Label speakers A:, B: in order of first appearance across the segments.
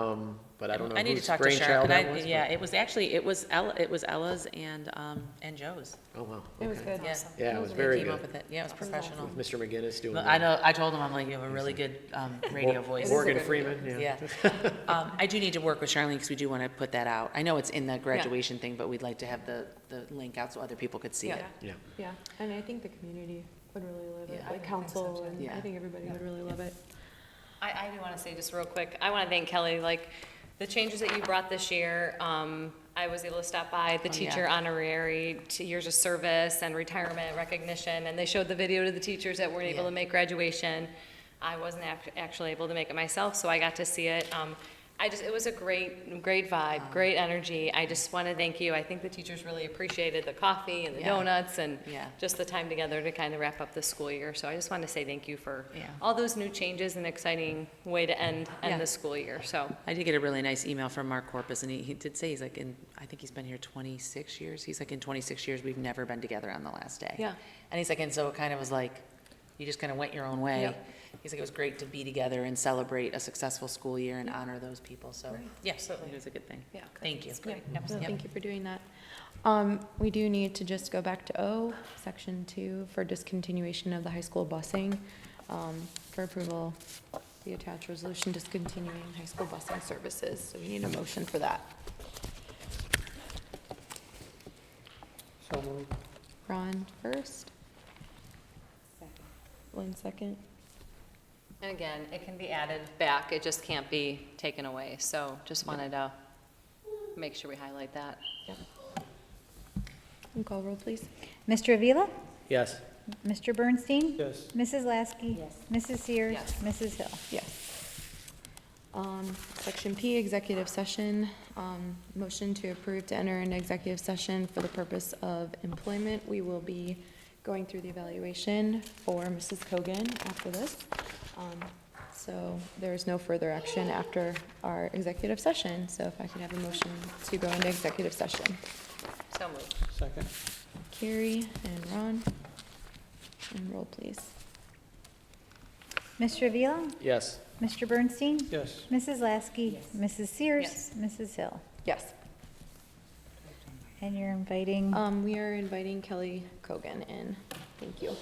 A: Um, but I don't know
B: I need to
A: whose
B: talk to Cheryl,
A: brainchild
B: and
A: that
B: I,
A: was.
B: yeah, it was actually, it was Ella, it was Ella's and, um, and Joe's.
A: but- Oh, wow.
C: It was
A: okay.
C: good.
B: Yeah.
A: Yeah, it was
B: They
A: very
B: came up
A: good.
B: with it. Yeah, it was professional.
A: With Mr. McGinnis doing.
B: But I
A: the-
B: know, I told him, I'm like, you have a really good, um, radio
A: Mor-
B: voice.
A: Morgan
C: good
A: Freeman,
B: Yeah.
A: yeah.
B: Um, I do need to work with Charlene, because we do want to put that out. I know it's in the graduation thing, but we'd like to have the, the link out so other people could see
C: Yeah.
B: it.
A: Yeah.
C: Yeah, and I think the community would really love it,
B: Yeah.
C: like council, and
B: Yeah.
C: I think everybody would really love it.
D: I, I do want to say just real quick, I want to thank Kelly, like, the changes that you brought this year, um, I was able to stop by, the
B: Oh, yeah.
D: teacher honorary, two years of service and retirement recognition, and they showed the video to the teachers that weren't able
B: Yeah.
D: to make graduation. I wasn't ac- actually able to make it myself, so I got to see it. Um, I just, it was a great, great vibe, great energy. I just want to thank you. I think the teachers really appreciated the coffee and the
B: Yeah.
D: donuts and
B: Yeah.
D: just the time together to kind of wrap up the school year. So I just want to say thank you for
B: Yeah.
D: all those new changes and exciting way to end,
B: Yeah.
D: end the school year, so.
B: I did get a really nice email from Mark Corpus, and he, he did say, he's like, in, I think he's been here twenty-six years. He's like, in twenty-six years, we've never been together on the last day.
D: Yeah.
B: And he's like, and so it kind of was like, you just kind of went your own way.
D: Yep.
B: He's like, it was great to be together and celebrate a successful school year and honor those people, so. Yeah, it was a good thing.
D: Yeah.
B: Thank you.
D: It's great.
C: Yeah, no,
B: Yep.
C: thank you for doing that. Um, we do need to just go back to O, section two, for discontinuation of the high school busing. Um, for approval, the attached resolution discontinuing high school busing services, so we need a motion for that.
A: So moved.
C: Ron first. Lynn second.
D: And again, it can be added back, it just can't be taken away, so just wanted to make sure we highlight that.
C: And call roll, please.
E: Mr. Avila?
A: Yes.
E: Mr. Bernstein?
F: Yes.
E: Mrs. Lasky? Mrs. Sears?
D: Yes.
E: Mrs. Hill?
C: Yes. Um, Section P, executive session. Um, Motion to approve to enter an executive session for the purpose of employment. We will be going through the evaluation for Mrs. Kogan after this. Um, So there is no further action after our executive session. So if I could have a motion to go into executive session.
D: So moved.
F: Second?
C: Carrie and Ron. And roll, please.
E: Mr. Avila?
A: Yes.
E: Mr. Bernstein?
F: Yes.
E: Mrs. Lasky? Mrs. Sears?
D: Yes.
E: Mrs. Hill?
C: Yes.
E: And you're inviting?
C: Um, We are inviting Kelly Kogan in. Thank you.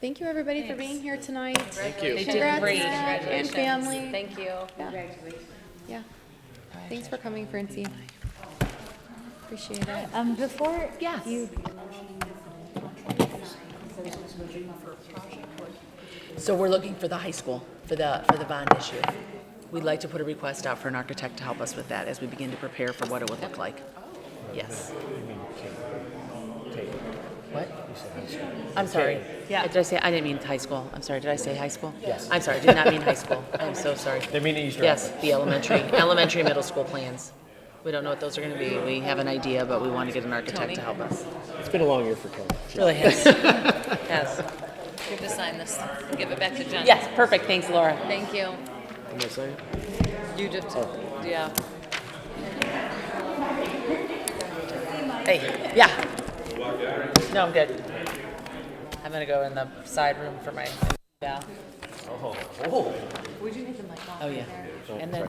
C: Thank you, everybody, for being here tonight.
A: Thank you.
C: Congrats,
B: great.
C: Zach, and
D: Congratulations.
C: family.
D: Thank you.
C: Yeah. Thanks for coming, Francie. Appreciate it.
E: Um, before you
B: So we're looking for the high school, for the, for the bond issue. We'd like to put a request out for an architect to help us with that as we begin to prepare for what it would look like. Yes. What? I'm sorry. Yeah. Did I say, I didn't mean high school. I'm sorry, did I say high school? Yes. I'm sorry, did not mean high school. I'm so sorry.
F: They mean Easter.
B: Yes, the elementary, elementary, middle school plans. We don't know what those are gonna be. We have an idea, but we want to get an architect to help us.
A: It's been a long year for Kelly.
B: Really has. Yes.
D: You have to sign this, give it back to Jen.
B: Yes, perfect, thanks, Laura.
D: Thank you.
A: Am I saying?
D: You just, yeah.
B: Hey, yeah. No, I'm good. I'm gonna go in the side room for my val. Oh, oh. yeah. And then